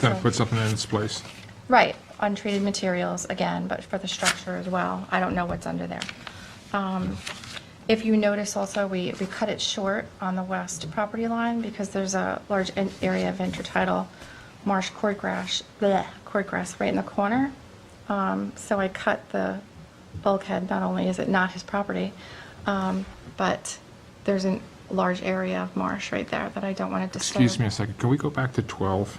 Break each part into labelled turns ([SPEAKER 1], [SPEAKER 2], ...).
[SPEAKER 1] Kind of put something in its place.
[SPEAKER 2] Right, untreated materials again, but for the structure as well. I don't know what's under there. Um, If you notice also, we, we cut it short on the west property line because there's a large in- area of intertidal marsh cordgrass, bleh, cordgrass right in the corner. Um, So I cut the bulkhead, not only is it not his property, um, but there's a large area of marsh right there that I don't want to disturb.
[SPEAKER 1] Excuse me a second, can we go back to 12?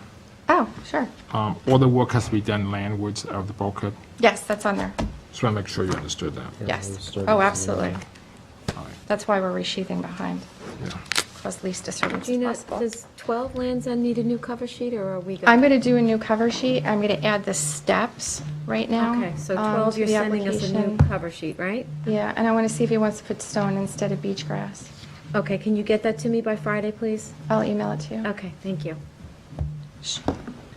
[SPEAKER 2] Oh, sure.
[SPEAKER 1] Um, All the work has to be done landwards of the bulkhead.
[SPEAKER 2] Yes, that's on there.
[SPEAKER 1] Just want to make sure you understood that.
[SPEAKER 2] Yes.
[SPEAKER 3] started
[SPEAKER 2] Oh,
[SPEAKER 3] from
[SPEAKER 2] absolutely.
[SPEAKER 1] All right,
[SPEAKER 2] That's why we're resheathing behind,
[SPEAKER 1] yeah.
[SPEAKER 2] cause least disturbance as
[SPEAKER 4] Gina,
[SPEAKER 2] possible.
[SPEAKER 4] does 12 Lands End need a new cover sheet, or are we good?
[SPEAKER 2] I'm gonna do a new cover sheet. I'm gonna add the steps right now.
[SPEAKER 4] Okay, so
[SPEAKER 2] um,
[SPEAKER 4] 12,
[SPEAKER 2] to
[SPEAKER 4] you're
[SPEAKER 2] the
[SPEAKER 4] sending us a new
[SPEAKER 2] application.
[SPEAKER 4] cover sheet, right?
[SPEAKER 2] Yeah, and I wanna see if he wants to put stone instead of beach grass.
[SPEAKER 4] Okay, can you get that to me by Friday, please?
[SPEAKER 2] I'll email it to you.
[SPEAKER 4] Okay, thank you.
[SPEAKER 2] Shh.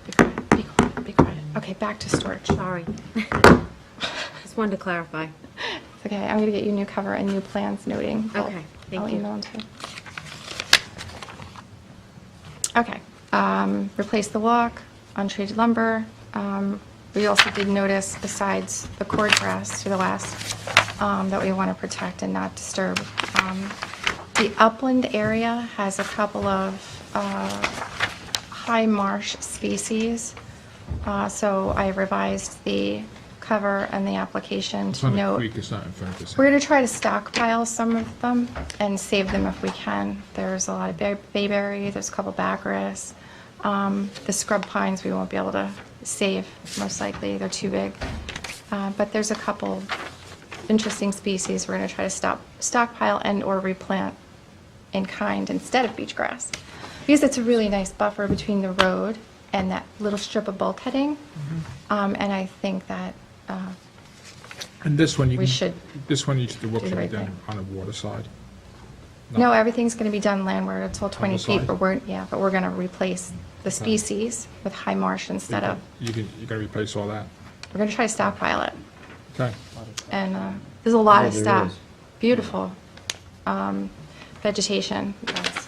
[SPEAKER 2] Be quiet, be quiet, be quiet. Okay, back to storage.
[SPEAKER 4] Sorry. Just wanted to clarify.
[SPEAKER 2] It's okay, I'm gonna get you new cover and new plans noting. I'll-
[SPEAKER 4] Okay, thank
[SPEAKER 2] I'll
[SPEAKER 4] you.
[SPEAKER 2] email them to you. Okay, um, replace the walk, untreated lumber. Um, we also did notice besides the cord grass to the west, um, that we want to protect and not disturb. Um, The upland area has a couple of, uh, high marsh species. Uh, so I revised the cover and the application
[SPEAKER 1] It's
[SPEAKER 2] to
[SPEAKER 1] on the
[SPEAKER 2] note.
[SPEAKER 1] creek, it's not in front of us.
[SPEAKER 2] We're going to try to stockpile some of them and save them if we can. There's a lot of bay- bayberry, there's a couple baccaris. Um, The scrub pines, we won't be able to save, most likely, they're too big. Uh, But there's a couple interesting species we're going to try to stop, stockpile and/or replant in kind instead of beach grass. Because it's a really nice buffer between the road and that little strip of bulkheading. Um, And I think that uh,
[SPEAKER 1] And this one, you
[SPEAKER 2] We
[SPEAKER 1] can-
[SPEAKER 2] should
[SPEAKER 1] This one, you should, the work
[SPEAKER 2] do the
[SPEAKER 1] should be
[SPEAKER 2] right
[SPEAKER 1] done
[SPEAKER 2] thing.
[SPEAKER 1] on the water side.
[SPEAKER 2] No, everything's going to be done landward. It's all 20 feet,
[SPEAKER 1] side?
[SPEAKER 2] but we're, yeah, but we're going to replace the species with high marsh instead of,
[SPEAKER 1] You can, you gotta replace all that.
[SPEAKER 2] we're going to try to stockpile it.
[SPEAKER 1] Okay.
[SPEAKER 2] And uh, there's a lot
[SPEAKER 3] Yeah,
[SPEAKER 2] of
[SPEAKER 3] Oh, there
[SPEAKER 2] stuff.
[SPEAKER 3] is.
[SPEAKER 2] Beautiful um, vegetation. That's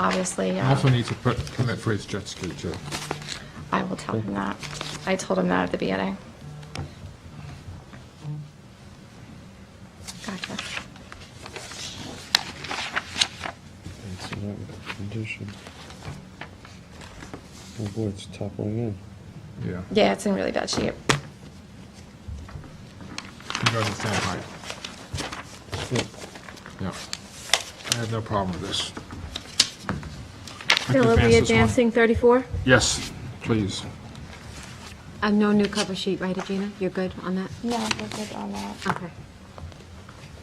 [SPEAKER 2] Obviously,
[SPEAKER 1] I Also
[SPEAKER 2] uh,
[SPEAKER 1] need to put, commit for his jet ski too.
[SPEAKER 2] I will tell him that. I told him that at the beginning. Gotcha.
[SPEAKER 3] It's in that condition. Oh boy, it's toppling in.
[SPEAKER 1] Yeah.
[SPEAKER 2] Yeah, it's in really bad shape.
[SPEAKER 1] You gotta understand height.
[SPEAKER 3] Yeah.
[SPEAKER 1] Yeah. I have no problem with this.
[SPEAKER 4] Bill, are we
[SPEAKER 1] Advance this one.
[SPEAKER 4] advancing 34?
[SPEAKER 1] Yes, please.
[SPEAKER 4] Uh, No new cover sheet, right, Gina? You're good on that?
[SPEAKER 2] No, we're good on that.
[SPEAKER 4] Okay,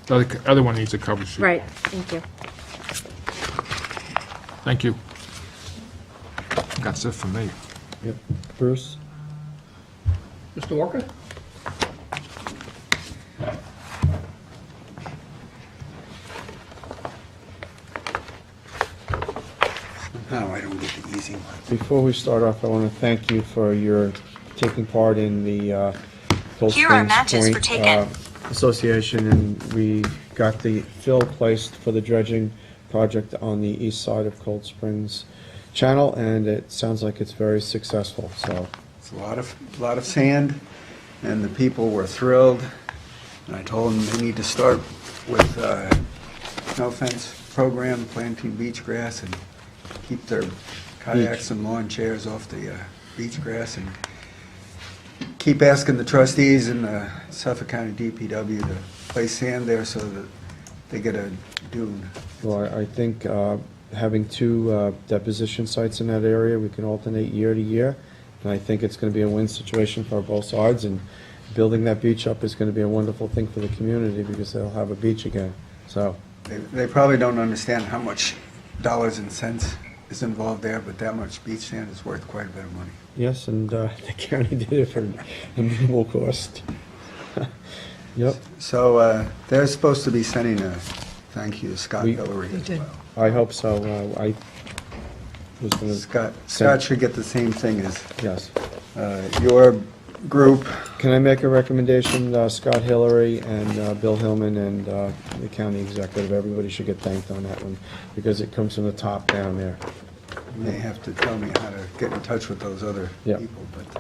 [SPEAKER 1] The other c- other one needs a cover sheet.
[SPEAKER 4] right, thank you.
[SPEAKER 1] Thank you. That's it for me.
[SPEAKER 3] Yep. Bruce?
[SPEAKER 5] Mr. Walker?
[SPEAKER 6] No, Oh, I don't get the easy one.
[SPEAKER 3] Before we start off, I want to thank you for your taking part in the uh, Cold
[SPEAKER 7] Here are
[SPEAKER 3] Springs
[SPEAKER 7] matches for
[SPEAKER 3] Point,
[SPEAKER 7] taken.
[SPEAKER 3] uh, Association, and we got the fill placed for the dredging project on the east side of Cold Springs Channel, and it sounds like it's very successful, so
[SPEAKER 6] It's a lot of, a lot of sand, and the people were thrilled. And I told them they need to start with, uh, no fence program, planting beach grass, and keep their kayaks and lawn chairs off the, uh, beach grass, and keep asking the trustees and the Suffolk County DPW to place sand there so that they get a dune.
[SPEAKER 3] Well, I I think uh, having two uh, deposition sites in that area, we can alternate year to year, and I think it's going to be a win situation for both sides, and building that beach up is going to be a wonderful thing for the community, because they'll have a beach again, so.
[SPEAKER 6] They, they probably don't understand how much dollars and cents is involved there, but that much beach sand is worth quite a bit of money.
[SPEAKER 3] Yes, and uh, the county did it for a minimal cost. Yep,
[SPEAKER 6] So uh, they're supposed to be sending a thank you to Scott
[SPEAKER 3] We-
[SPEAKER 6] Hillary as well.
[SPEAKER 3] I hope so, Uh, I was going to,
[SPEAKER 6] Scott, Scott should get the same thing as
[SPEAKER 3] yes.
[SPEAKER 6] uh, your group.
[SPEAKER 3] Can I make a recommendation, Uh, Scott Hillary and uh, Bill Hillman and uh, the county executive, everybody should get thanked on that one, because it comes from the top down there.
[SPEAKER 6] may have to tell me how to get in touch with those other
[SPEAKER 3] Yeah.
[SPEAKER 6] people, but.